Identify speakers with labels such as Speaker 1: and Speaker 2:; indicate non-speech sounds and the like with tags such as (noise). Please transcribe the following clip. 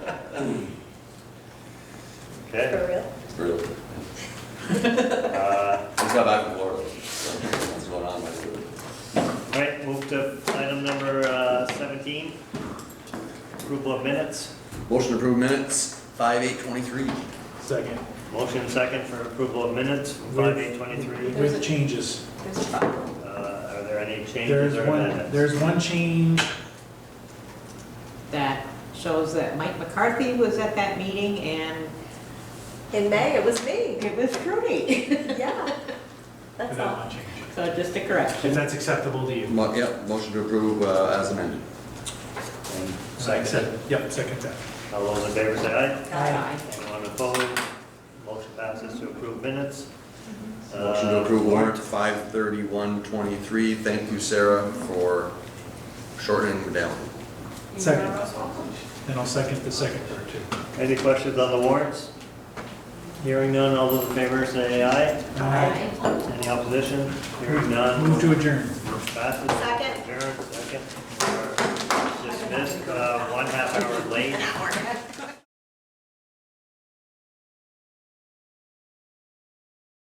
Speaker 1: Okay.
Speaker 2: For real?
Speaker 3: Really.
Speaker 1: Uh,
Speaker 3: Just got back from Florida. so What's going on, my dude?
Speaker 1: All right, move to item number uh, 17, approval of minutes.
Speaker 3: Motion to approve minutes, five eight twenty-three.
Speaker 4: Second.
Speaker 1: Motion second for approval of minutes from 5/8/23.
Speaker 4: With changes.
Speaker 1: Uh, Are there any
Speaker 4: There's
Speaker 1: changes or
Speaker 4: one,
Speaker 1: amendments?
Speaker 4: there's one change,
Speaker 5: that shows that Mike McCarthy was at that meeting and
Speaker 2: In May, it was me,
Speaker 5: (laughs) it was Trudy.
Speaker 2: yeah. That's
Speaker 4: that
Speaker 2: all.
Speaker 4: one change.
Speaker 5: (laughs) So just a
Speaker 4: If
Speaker 5: correction.
Speaker 4: that's acceptable to you.
Speaker 3: Mo- Yep, motion to approve uh, as amended.
Speaker 1: Second.
Speaker 4: Yep, second that.
Speaker 1: All those in favor say aye.
Speaker 5: Aye.
Speaker 1: Anyone opposed? Motion passes to approve minutes.
Speaker 3: Motion to
Speaker 1: Uh,
Speaker 3: approve warrant five thirty-one twenty-three. Thank you, Sarah, for shortening it down.
Speaker 4: Second. And I'll second the second part too.
Speaker 1: Any questions on the warrants? Hearing none, all those in favor say aye.
Speaker 4: Aye.
Speaker 1: Any opposition? Hearing none.
Speaker 4: Move to adjourn.
Speaker 1: Passes.
Speaker 2: Second.
Speaker 1: Adjourned, second. Dismissed, uh, one half hour late.